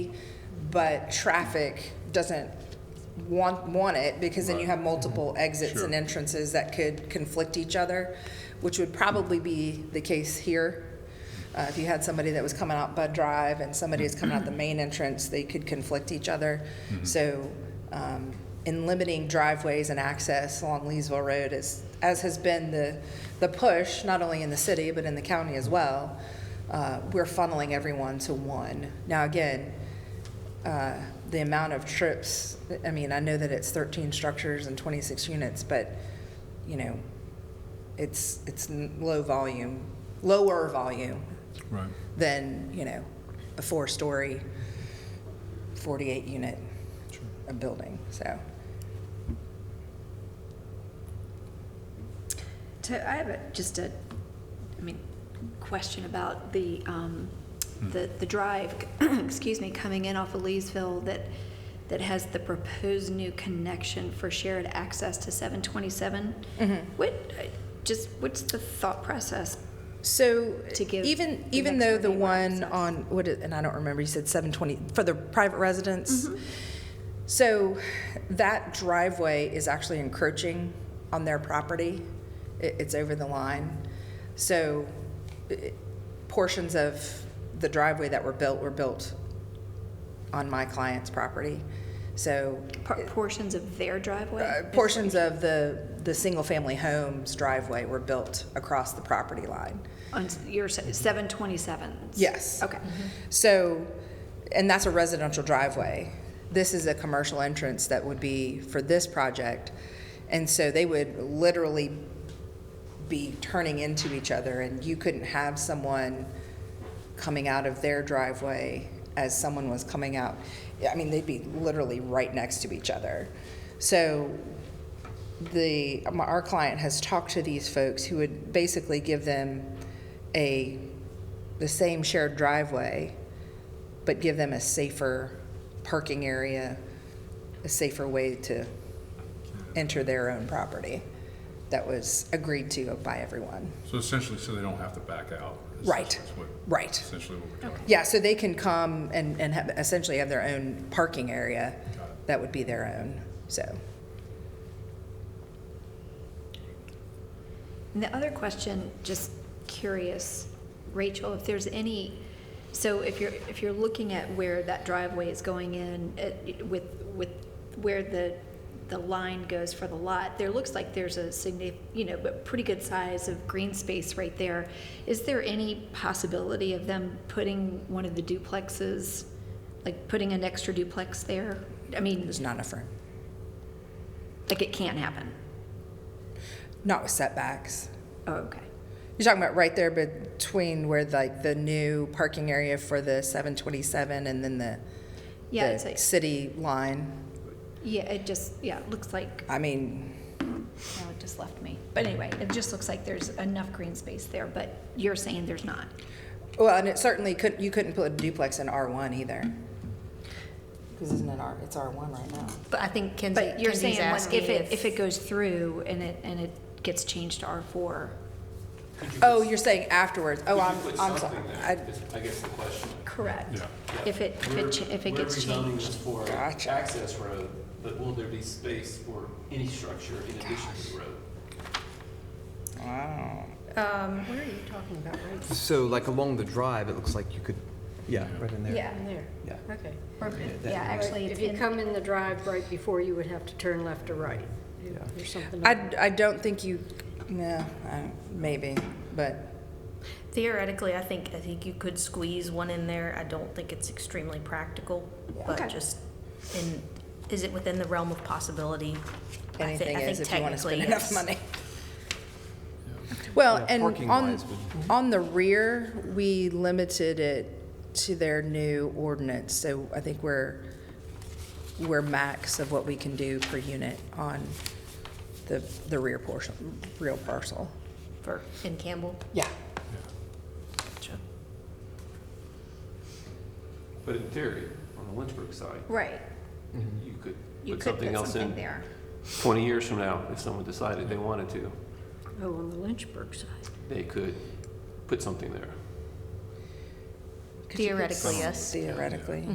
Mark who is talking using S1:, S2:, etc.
S1: but traffic doesn't want, want it, because then you have multiple exits and entrances that could conflict each other, which would probably be the case here. Uh, If you had somebody that was coming out Bud Drive and somebody is coming out the main entrance, they could conflict each other. So um, in limiting driveways and access along Leesville Road is, as has been the, the push, not only in the city, but in the county as well, uh, we're funneling everyone to one. Now, again, uh, the amount of trips, I mean, I know that it's 13 structures and 26 units, but, you know, it's, it's n- low volume, lower volume
S2: Right.
S1: than, you know, a four-story, 48-unit a building, so.
S3: To, I have a, just a, I mean, question about the, um, the, the drive, excuse me, coming in off of Leesville that, that has the proposed new connection for shared access to seven twenty-seven.
S1: Mm-hmm.
S3: What, I- just, what's the thought process?
S1: So
S3: To give
S1: even,
S3: the
S1: even
S3: next
S1: though
S3: door
S1: the
S3: neighbor
S1: one
S3: access.
S1: on, what, it- and I don't remember, you said 720, for the private residence?
S3: Mm-hmm.
S1: So that driveway is actually encroaching on their property. It, it's over the line. So i- portions of the driveway that were built were built on my client's property. So
S3: Por- Portions of their
S1: uh,
S3: driveway?
S1: portions of the, the single-family homes driveway were built across the property line.
S3: On s- your seven twenty-seven?
S1: Yes. Mm-hmm.
S3: Okay.
S1: So, and that's a residential driveway. This is a commercial entrance that would be for this project. And so they would literally be turning into each other and you couldn't have someone coming out of their driveway as someone was coming out. I mean, they'd be literally right next to each other. So the, my- our client has talked to these folks who would basically give them a, the same shared driveway, but give them a safer parking area, a safer way to enter their own property that was agreed to by everyone.
S2: So essentially, so they don't have to back out. is
S1: Right.
S2: what-
S1: Right.
S2: Essentially what we're doing.
S1: Yeah, so they can come and, and have- essentially have their own parking area that would be their own, so.
S3: And the other question, just curious, Rachel, if there's any, so if you're, if you're looking at where that driveway is going in, it- with, with where the, the line goes for the lot, there looks like there's a signi, you know, but pretty good size of green space right there. Is there any possibility of them putting one of the duplexes, like putting an extra duplex there? I mean,
S1: There's not enough room,
S3: like it can't happen.
S1: not with setbacks.
S3: Oh, okay.
S1: You're talking about right there between where like the new parking area for the 727 and then the,
S3: Yeah,
S1: the
S3: it's like,
S1: city line?
S3: yeah, it just, yeah, it looks like
S1: I mean,
S3: Well, it just left me. But anyway, it just looks like there's enough green space there, but you're saying there's not.
S1: well, and it certainly couldn't, you couldn't put a duplex in R1 either. Because isn't it R, it's R1 right now?
S4: But I think Kenzie,
S3: But you're saying
S4: Kenzie's
S3: when-
S4: asking
S3: if it, if it goes through and it, and it gets changed to R4,
S1: Oh, you're saying afterwards, oh,
S5: Could you
S1: I'm,
S5: put
S1: I'm sorry.
S5: something there,
S1: I-
S5: is- I guess the question.
S3: correct?
S2: Yeah.
S3: If it, if it, cha- if it gets
S5: We're rezoning
S3: changed.
S5: this for
S1: Gotcha.
S5: access road, but will there be space for any structure in addition to the road?
S4: Um, where are you talking about, right
S6: So like along the drive, it looks like you could, yeah, right in there.
S3: Yeah,
S4: in there?
S6: Yeah.
S4: Okay.
S3: or-
S6: that
S3: yeah,
S6: makes-
S3: actually, it's
S4: If you
S3: in,
S4: come in the drive right before, you would have to turn left or right, or something. like-
S1: I, I don't think you, no, I- maybe, but,
S7: Theoretically, I think, I think you could squeeze one in there. I don't think it's extremely practical,
S3: Okay.
S7: but just in, is it within the realm of possibility? I thi- I
S1: anything is
S7: think
S1: if you want to spend
S7: technically,
S1: enough
S7: yes.
S1: money. Well,
S6: Yeah,
S1: and on,
S6: parking-wise,
S1: on the rear, we limited it to their new ordinance, so I think we're, we're max of what we can do per unit on the, the rear portion, real parcel.
S7: For, in Campbell?
S1: Yeah.
S7: Gotcha.
S5: But in theory, on the Lynchburg side,
S3: right,
S5: you could
S3: Mm-hmm. you
S5: put
S3: could
S5: something
S3: put
S5: else
S3: something
S5: in
S3: there.
S5: twenty years from now, if someone decided they wanted to,
S4: Oh, on the Lynchburg side.
S5: they could put something there.
S7: Theoretically, yes.
S1: Theoretically.